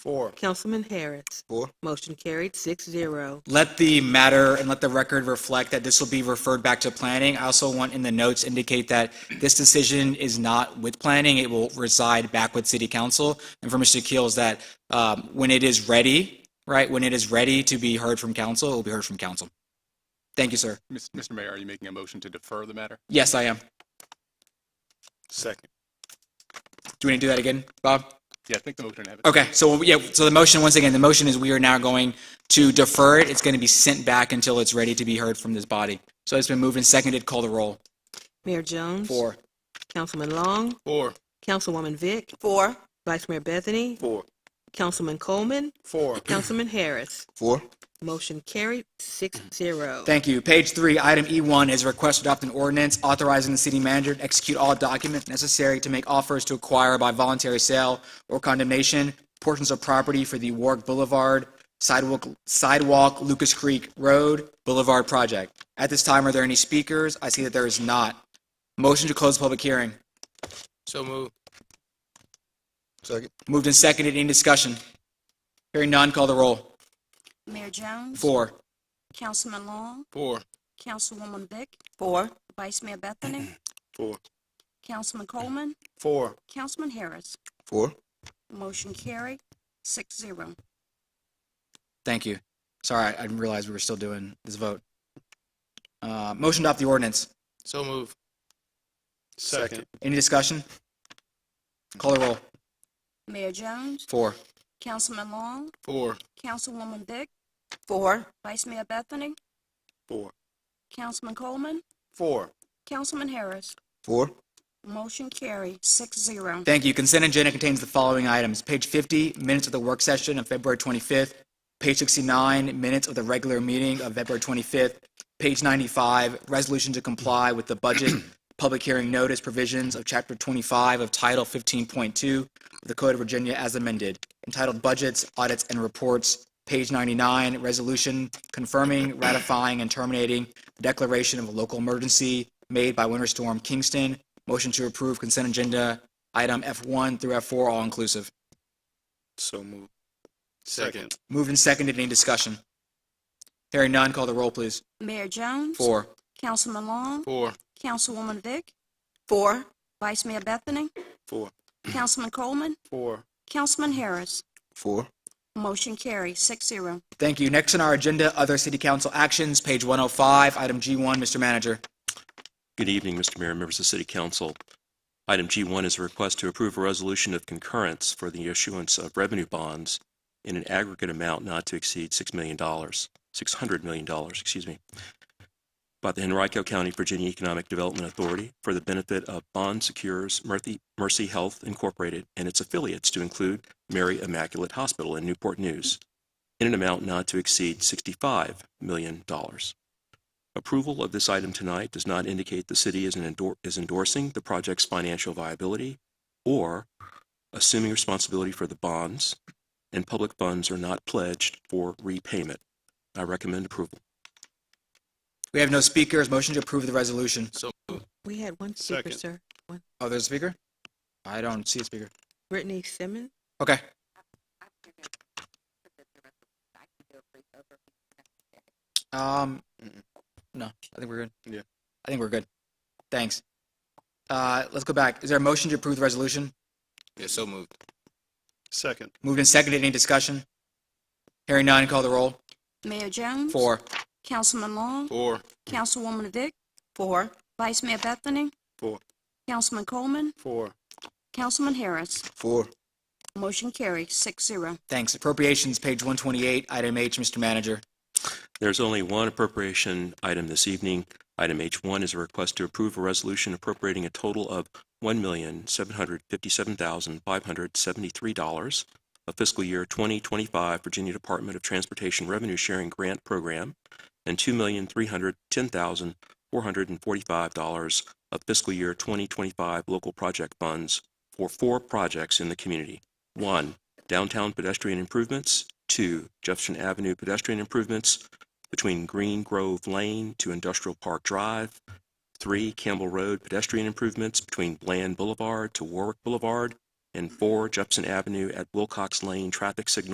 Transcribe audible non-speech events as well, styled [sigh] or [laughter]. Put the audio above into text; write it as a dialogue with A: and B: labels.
A: Four.
B: Councilman Harris.
A: Four.
B: Motion carried six zero.
C: Let the matter and let the record reflect that this will be referred back to planning. I also want in the notes indicate that this decision is not with planning. It will reside back with city council. And for Mr. Keel is that um, when it is ready, right, when it is ready to be heard from council, it will be heard from council. Thank you, sir.
D: Mis- Mr. Mayor, are you making a motion to defer the matter?
C: Yes, I am.
A: Second.
C: Do we need to do that again, Bob?
D: Yeah, I think the motion have it.
C: Okay, so yeah, so the motion, once again, the motion is we are now going to defer it. It's going to be sent back until it's ready to be heard from this body. So it's been moved and seconded. Call the roll.
B: Mayor Jones.
C: Four.
B: Councilman Long.
D: Four.
B: Councilwoman Vick. Four. Vice Mayor Bethany.
A: Four.
B: Councilman Coleman.
A: Four.
B: Councilman Harris.
A: Four.
B: Motion carried six zero.
C: Thank you. Page three, item E1 is request to adopt an ordinance authorizing the city manager to execute all documents necessary to make offers to acquire by voluntary sale or condemnation portions of property for the Warwick Boulevard sidewalk, sidewalk Lucas Creek Road Boulevard project. At this time, are there any speakers? I see that there is not. Motion to close the public hearing.
E: So moved.
A: Second.
C: Moved and seconded. Any discussion? Hearing none, call the roll.
F: Mayor Jones.
C: Four.
F: Councilman Long.
D: Four.
F: Councilwoman Vick.
B: Four.
F: Vice
C: [clears throat]
F: Mayor Bethany.
A: Four.
F: Councilman Coleman.
A: Four.
F: Councilman Harris.
A: Four.
F: Motion carried, six zero.
C: Thank you. Sorry, I didn't realize we were still doing this vote. Uh, motion to adopt the ordinance.
E: So moved.
A: Second.
C: Any discussion? Call the roll.
F: Mayor Jones.
C: Four.
F: Councilman Long.
D: Four.
F: Councilwoman Vick.
B: Four.
F: Vice Mayor Bethany.
A: Four.
F: Councilman Coleman.
A: Four.
F: Councilman Harris.
A: Four.
F: Motion carried, six zero.
C: Thank you. Consent agenda contains the following items. Page 50, minutes of the work session of February 25th. Page 69, minutes of the regular meeting of February 25th. Page 95, resolution to comply with the budget [clears throat] public hearing notice provisions of Chapter 25 of Title 15.2 of the Code of Virginia as amended, entitled Budgets, Audits, and Reports. Page 99, resolution confirming, ratifying, and terminating the declaration of a local emergency made by Winter Storm Kingston. Motion to approve consent agenda item F1 through F4, all inclusive.
A: So moved.
D: Second.
C: Moved and seconded. Any discussion? Hearing none, call the roll, please.
F: Mayor Jones.
C: Four.
F: Councilman Long.
D: Four.
F: Councilwoman Vick.
B: Four.
F: Vice Mayor Bethany.
A: Four.
F: Councilman Coleman.
A: Four.
F: Councilman Harris.
A: Four.
F: Motion carried, six zero.
C: Thank you. Next on our agenda, other city council actions, page 105, item G1, Mr. Manager.
G: Good evening, Mr. Mayor and members of City Council. Item G1 is a request to approve a resolution of concurrence for the issuance of revenue bonds in an aggregate amount not to exceed $6 million, $600 million, excuse me, by the Henrico County, Virginia Economic Development Authority for the benefit of Bond Secures Mercy Mercy Health Incorporated and its affiliates to include Mary Immaculate Hospital in Newport News in an amount not to exceed $65 million. Approval of this item tonight does not indicate the city is an endor- is endorsing the project's financial viability or assuming responsibility for the bonds, and public funds are not pledged for repayment. I recommend approval.
C: We have no speakers. Motion to approve the resolution.
B: We had one speaker,
D: Second.
B: sir. One.
C: Oh, there's a speaker? I don't see a speaker.
B: Brittany Simmons.
C: Okay. Um, no, I think we're good.
A: Yeah.
C: I think we're good. Thanks. Uh, let's go back. Is there a motion to approve the resolution?
E: Yeah, so moved.
A: Second.
C: Moved and seconded. Any discussion? Hearing none, call the roll.
F: Mayor Jones.
C: Four.
F: Councilman Long.
D: Four.
F: Councilwoman Vick. Four. Vice Mayor Bethany.
A: Four.
F: Councilman Coleman.
A: Four.
F: Councilman Harris.
A: Four.
F: Motion carried, six zero.
C: Thanks. Appropriations, page 128, item H, Mr. Manager.
G: There's only one appropriation item this evening. Item H1 is a request to approve a resolution appropriating a total of $1,757,573 of fiscal year 2025 Virginia Department of Transportation Revenue Sharing Grant Program and $2,310,445 of fiscal year 2025 local project funds for four projects in the community. One, downtown pedestrian improvements. Two, Jefferson Avenue pedestrian improvements between Green Grove Lane to Industrial Park Drive. Three, Campbell Road pedestrian improvements between Bland Boulevard to Warwick Boulevard. and four Jepson Avenue at Wilcox Lane traffic signal